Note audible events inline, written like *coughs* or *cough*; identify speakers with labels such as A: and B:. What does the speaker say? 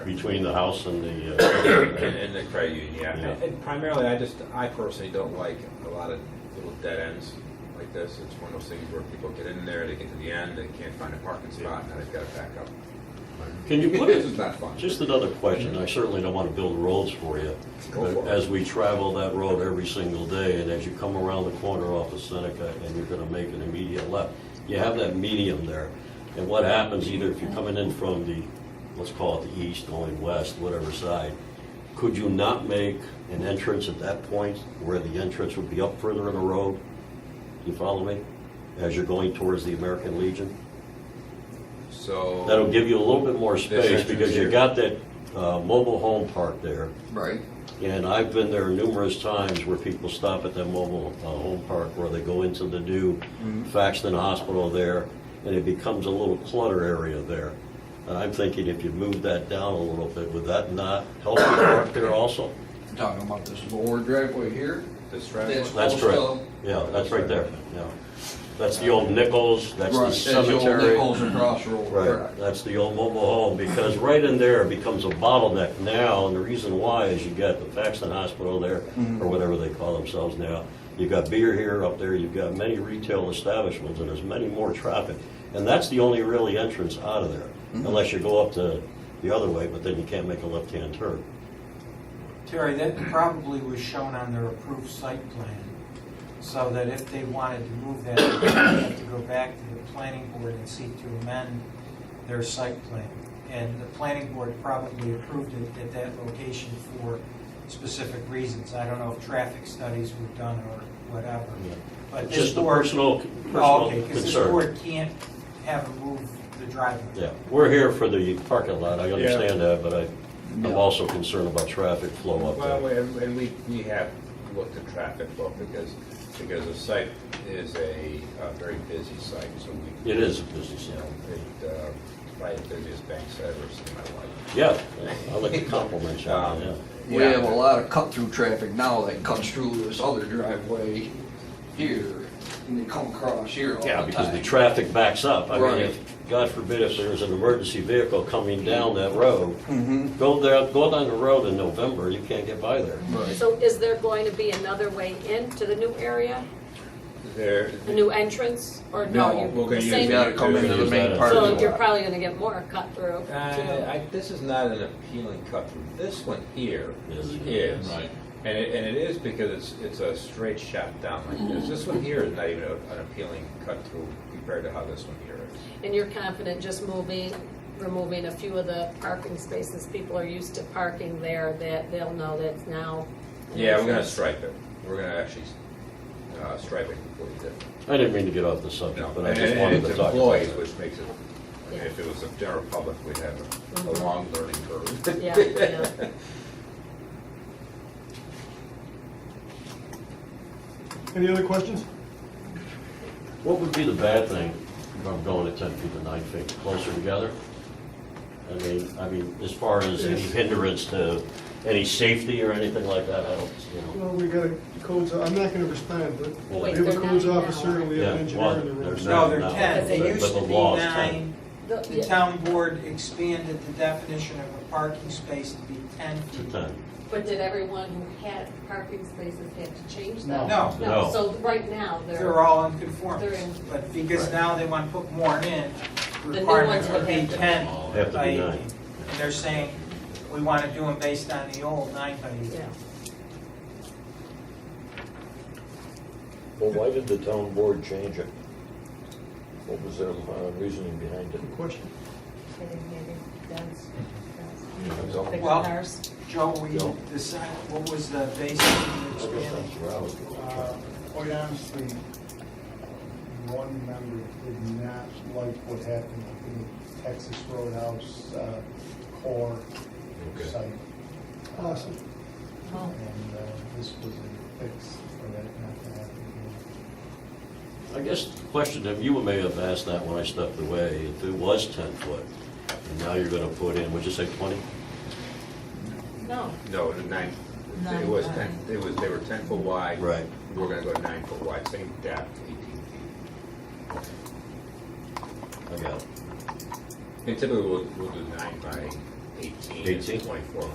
A: between the house and the, uh, *coughs*
B: And, and the credit union, yeah.
A: Yeah.
B: And, and primarily, I just, I personally don't like a lot of little dead ends like this. It's one of those things where people get in there, they get to the end, they can't find a parking spot, and then they've got to back up.
A: can you put
B: This
A: it,
B: is not fun.
A: just another question, I certainly don't want to build roads for you.
B: Go
A: But
B: for it.
A: as we travel that road every single day, and as you come around the corner off of Seneca, and you're gonna make an immediate left, you have that medium there. And what happens, either if you're coming in from the, let's call it the east, going west, whatever side, could you not make an entrance at that point where the entrance would be up further in the road? Do you follow me? As you're going towards the American Legion?
B: So.
A: That'll give you a little bit more space
B: entrance
A: because you
B: here.
A: got that uh, mobile home park there.
C: Right.
A: And I've been there numerous times where people stop at that mobile uh, home park where they go into the new Faxton Hospital there, and it becomes a little clutter area there. And I'm thinking if you move that down a little bit, would that not help you park there also?
C: You're talking about this lower driveway here?
B: This driveway.
C: That's-
A: That's correct.
C: Also-
A: Yeah, that's right there, yeah. That's the old Nichols, that's
C: Right,
A: the cemetery.
C: That's the old Nichols and Crossroad.
A: Right, that's the old mobile home, because right in there becomes a bottleneck now, and the reason why is you got the Paxton Hospital there,
B: Mm-hmm.
A: or whatever they call themselves now. You've got beer here, up there, you've got many retail establishments, and there's many more traffic. And that's the only really entrance out of there,
B: Mm-hmm.
A: unless you go up to the other way, but then you can't make a left-hand turn.
D: Terry, that probably was shown on their approved site plan, so that if they wanted to move that, they'd have to go back to the planning board and seek to amend their site plan. And the planning board probably approved it at that location for specific reasons. I don't know if traffic studies were done or whatever, but
A: It's
D: this
A: just a
D: board...
A: personal,
D: Oh,
A: personal
D: Okay, because this
A: concern.
D: board can't have them move the driveway.
A: Yeah, we're here for the parking lot, I understand that, but I, I'm also concerned about traffic flow up there.
B: Well, we- and and we, we have looked at traffic flow because, because the site is a uh, very busy site, so we.
A: It is a business, yeah.
B: It, uh, Probably the busiest bank site I've ever seen in my life. Um,
A: Yeah, I like to compliment you on that,
C: We
B: Yeah.
C: have a lot of cut-through traffic now that comes through this other driveway here, and they come across here all the
A: yeah. Yeah,
C: time.
A: because the traffic backs up. I mean,
C: Right.
A: if, God forbid, if there's an emergency vehicle coming down that road, go there, go down the road in November, you can't get by there.
C: Right.
E: So is there going to be another way into the new area,
B: There,
E: a new entrance, or no?
C: No,
E: you-
B: we're gonna
E: the
B: use
E: same-
C: gotta come into the main part of
E: So
C: the
E: you're
C: lot.
E: probably gonna get more cut through.
B: Uh,
E: too.
B: I, this is not an appealing cut through. This one here
A: Yes.
B: is. And it, and it is because it's, it's a straight shot down like this. This one here is not even a- an appealing cut through compared to how this one here is.
E: And you're confident just moving, removing a few of the parking spaces people are used to parking there, that they'll know that's now.
B: Yeah, we're gonna stripe it. We're gonna actually, uh, stripe it completely different.
A: I didn't mean to get off the subject,
B: No,
A: but I
B: and-
A: just
B: and
A: wanted
B: it's
A: to talk about
B: employees,
A: it.
B: Which makes it, I mean, if it was the general public, we'd have a- a long learning curve. *laughs*
E: Yeah, yeah.
F: Any other questions?
A: What would be the bad thing if I'm going at ten feet to nine feet, closer together? I mean, I mean, as far as any hindrance to any safety or anything like that, I don't, you know.
F: Well, we got a codes, I'm not gonna respond, but
A: Wait,
F: we have a
E: they're
F: codes
E: nine now,
F: officer and we have an
A: Yeah,
F: engineer in the
A: one,
F: room.
A: there's
D: No,
A: nine
D: they're
A: now.
D: 10.
E: They
A: but-
D: It used
A: but
D: to
A: the
D: be
A: law's 10.
D: nine.
E: The-
D: The
E: yeah,
D: town board expanded the definition of a parking space to be 10
A: To
D: feet.
A: 10.
E: But did everyone who had parking spaces have to change
D: No.
E: that?
D: No.
A: No.
E: No, so right now,
D: They're
E: they're,
D: all in conformance,
E: They're in.
D: but because
A: Right.
D: now they want to put more in,
E: new
D: requirements
E: ones
D: would
E: would
D: be
E: have to be
D: 10
A: Have to be
D: by 18.
A: nine.
D: And they're saying, we want to do them based on the old 9 by 18.
E: yeah.
G: Well, why did the town board change it? What was their uh, reasoning behind it?
F: Good question.
D: Well, Joe, we decided, what was the basis of expanding?
H: Uh, Quite honestly, one member did not like what happened in the Texas Roadhouse uh, core site.
F: Awesome.
H: And uh, this was a fix for that not to happen again.
A: I guess the question that you may have asked that when I stepped away, if it was 10 foot, and now you're going to put in, would you say 20?
E: No.
B: No, the nine, it was ten, it was, they were ten foot wide.
A: Right.
B: We're gonna go nine foot wide, same depth, eighteen feet.
A: I got it.
B: And typically, we'll, we'll do nine by eighteen,
A: 18?
B: it's twenty-four